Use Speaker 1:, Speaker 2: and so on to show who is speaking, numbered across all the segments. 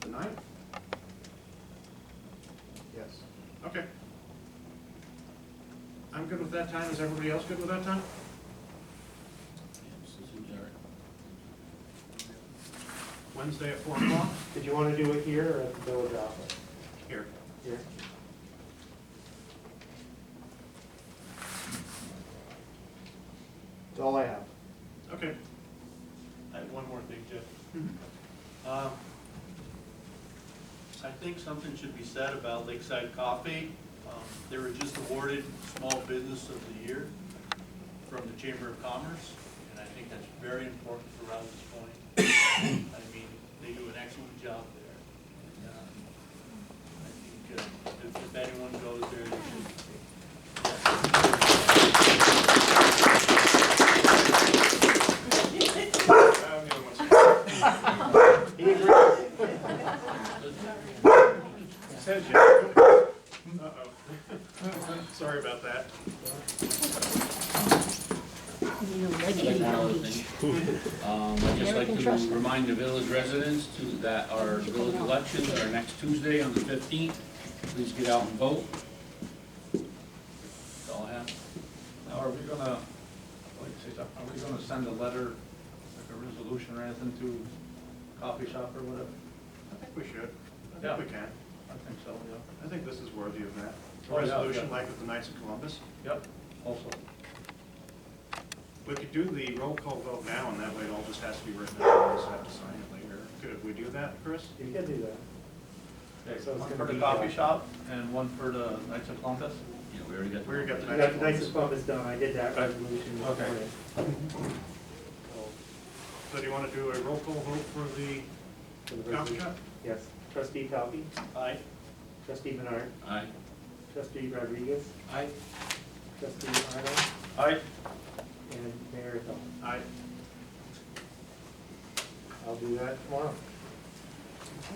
Speaker 1: tonight?
Speaker 2: Yes.
Speaker 1: Okay. I'm good with that time. Is everybody else good with that time? Wednesday at four o'clock?
Speaker 2: Did you want to do it here or at the village office?
Speaker 1: Here.
Speaker 2: Here. That's all I have.
Speaker 1: Okay.
Speaker 3: I have one more thing, Jeff.
Speaker 1: Mhm.
Speaker 3: Um, I think something should be said about Lakeside Coffee. Um, They were just awarded Small Business of the Year from the Chamber of Commerce, and I think that's very important for Rouse's Point. I mean, they do an excellent job there. And, uh, I think uh, if if anyone goes there, they should.
Speaker 1: Says you. Uh-oh. Sorry about that.
Speaker 4: Like Howard thing. Um, I'd just like
Speaker 5: American Trust.
Speaker 4: to remind the village residents to, that our village elections are next Tuesday on the fifteenth. Please get out and vote. That's all I have.
Speaker 6: Now, are we gonna, I'd like to say something, are we gonna send a letter, like a resolution or anything to coffee shop or whatever?
Speaker 1: I think we should. I
Speaker 6: Yeah.
Speaker 1: think we can.
Speaker 6: I think so, yeah.
Speaker 1: I think this is worthy of that. A
Speaker 6: Oh, yeah,
Speaker 1: Resolution
Speaker 6: yeah.
Speaker 1: like with the Knights of Columbus.
Speaker 6: Yep, also.
Speaker 1: We could do the roll call vote now, and that way it all just has to be written out, we just have to sign it later. Could we do that, Chris?
Speaker 2: You can do that.
Speaker 6: Okay,
Speaker 2: So
Speaker 6: One
Speaker 2: it's gonna
Speaker 6: for the
Speaker 2: be- uh,
Speaker 6: coffee shop and one for the Knights of Columbus?
Speaker 4: Yeah, we already got. the-
Speaker 1: We already got the
Speaker 2: You got the Knights of Columbus done, I did that resolution. this
Speaker 6: Okay.
Speaker 2: morning.
Speaker 1: So do you want to do a roll call vote for the
Speaker 2: So the
Speaker 1: coffee
Speaker 2: resolution-
Speaker 1: shop?
Speaker 2: Yes, trustee Calvi,
Speaker 3: Aye.
Speaker 2: trustee Menard,
Speaker 4: Aye.
Speaker 2: trustee Rodriguez,
Speaker 6: Aye.
Speaker 2: trustee Arnold,
Speaker 6: Aye.
Speaker 2: and Mayor Hill.
Speaker 1: Aye.
Speaker 2: I'll do that tomorrow.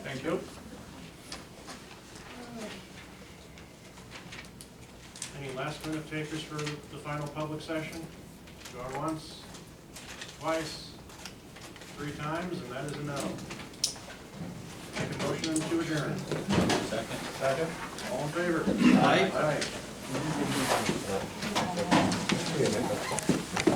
Speaker 6: Thank you.
Speaker 1: Any last minute takers for the final public session? Go once, twice, three times, and that is a no. Make a motion to adjourn.
Speaker 4: Second.
Speaker 6: Second?
Speaker 1: All in favor?
Speaker 4: Aye.
Speaker 1: Aye.